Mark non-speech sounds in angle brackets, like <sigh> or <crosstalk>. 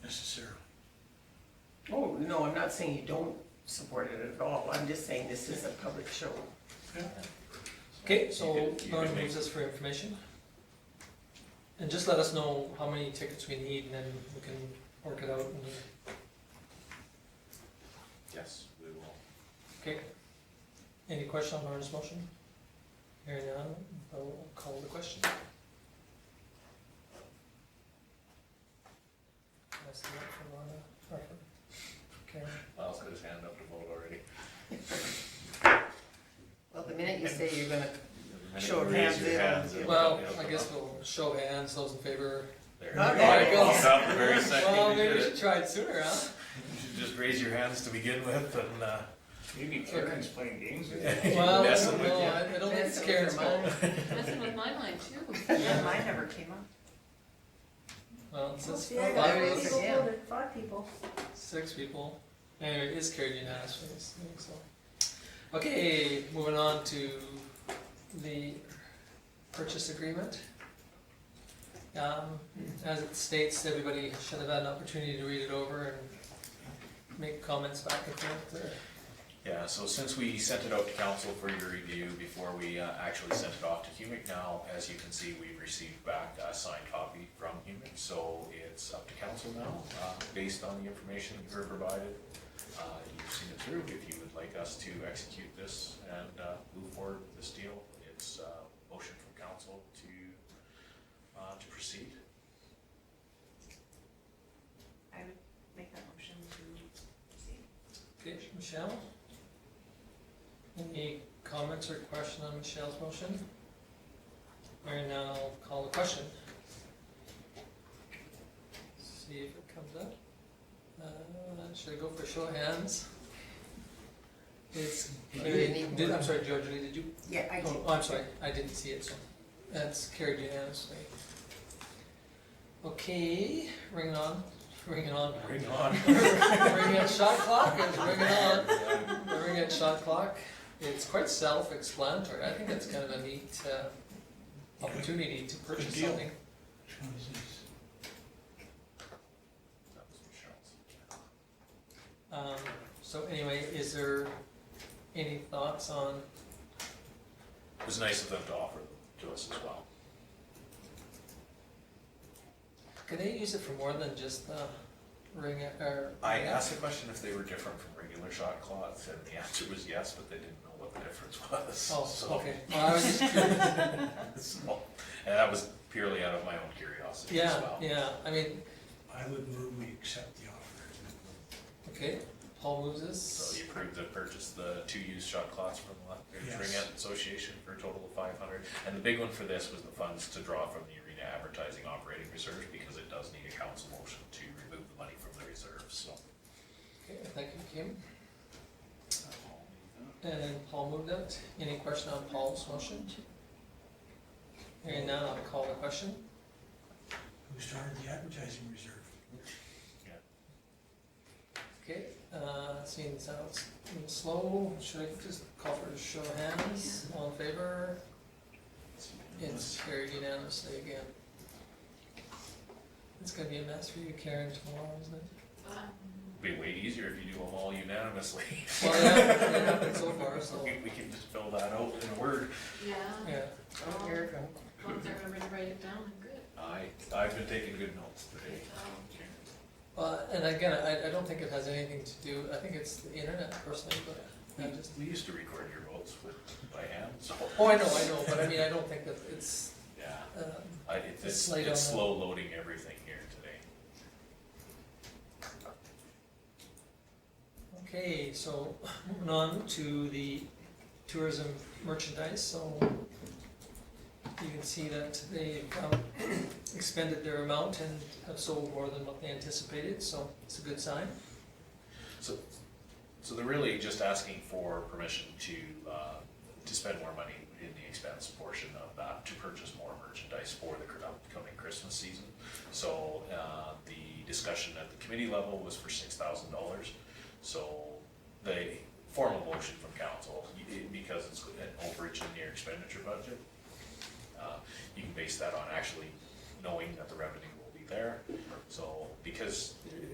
Oh, no, I'm not saying you don't support it at all, I'm just saying this is a public show. Okay, so You could- you Lauren could make- moves us for information. And just let us know how many tickets we need and then we can work it out and, Yes, we will. okay. Any question on Lauren's motion? Hearing none, I'll call the question. That's the one for Lorna, or for Karen. Miles put his hand up to vote already. Well, the minute you say you're gonna, Show Sure. of Raise hands, your yeah. hands. it'll Well, come- it'll I come guess up. we'll show hands, those in favor. There. Okay. There you go. Yes. Stop the very second Well, you maybe did we it. should try it sooner, <laughs> huh? You should Just raise your hands to begin with and, uh, Maybe Karen's playing games with you. Well, I Messing don't with know, you. I I don't think Messing it's with Karen's your fault. mind. Messing with my mind too. Yeah, mine never came up. Well, it says See, I got five There it three is people again. voted, five people. Six people. Anyway, it is carried unanimously, so I think so. Okay, moving on to the purchase agreement. Um, as it states, everybody should have had an opportunity to read it over and make comments back and forth there. Yeah, so since we sent it out to council for your review before we uh, actually sent it off to Humic now, as you can see, we've received back a signed copy from Humic, so it's up to council now, uh, based on the information you were provided. Uh, You've seen it through, if you would like us to execute this and uh, move forward with this deal, it's a motion from council to, uh, to proceed. I would make that motion to see. Okay, Michelle? Any comments or question on Michelle's motion? Or now I'll call the question. See if it comes up. Uh, should I go for show of hands? It's, You didn't even- did, I'm sorry, George, did you? Yeah, I do. Oh, I'm sorry, I didn't see it, so that's carried unanimously. Okay, ring it on, ring it on. Bring on. <laughs> Ring at shot clock is ringing on. The ring at shot clock. It's quite self-explanatory. I think it's kind of a neat uh, opportunity to purchase Good deal. something. That was Michelle's. Um, so anyway, is there any thoughts on? It was nice of them to offer to us as well. Can they use it for more than just the ring at or? I asked the question if they were different from regular shot clocks, and the answer was yes, but they didn't know what the difference was. Oh, <laughs> so- okay. Well, I was just <laughs> curious. so- And that was purely out of my own curiosity as Yeah, well. yeah. I mean, I would move we accept the offer. okay. Paul moves us. So you approved the purchase, the two used shot clocks from the Yes. Ring Out Association for a total of five hundred. And the big one for this was the funds to draw from the arena advertising operating reserve, because it does need a council motion to remove the money from the reserve, so. Okay, thank you, Kim. And Paul moved it. Any question on Paul's motion? Hearing none, I'll call the question. Who started the advertising reserve? Okay, uh, seeing as how it's been slow, should I just call for a show of hands? All in favor? It's carried unanimously again. It's gonna be a mess for you, Karen, tomorrow, isn't it? Uh, Be way easier if you do them all unanimously. <laughs> Well, yeah, it happened so far, so, We we can just fill that out in a word. Yeah, yeah. Oh, here it comes. as long as I remember to write it down, I'm good. I, I've been taking good notes today. Um, Well, and again, I, I don't think it has anything to do, I think it's the internet personally, but I just We used to record your votes with, by hand, so. Oh, I know, I know, but I mean, I don't think that it's, Yeah, um, I, it's, It's it's late it's on that. slow loading everything here today. okay, so moving on to the tourism merchandise, so you can see that they've um, <clears throat> expended their amount and have sold more than what they anticipated, so it's a good sign. So, so they're really just asking for permission to, uh, to spend more money in the expense portion of that, to purchase more merchandise for the cur- upcoming Christmas season. So, uh, the discussion at the committee level was for six thousand dollars. So, the formal motion from council, y- it- because it's an overage in your expenditure budget, uh, you can base that on actually knowing that the revenue will be there. So, because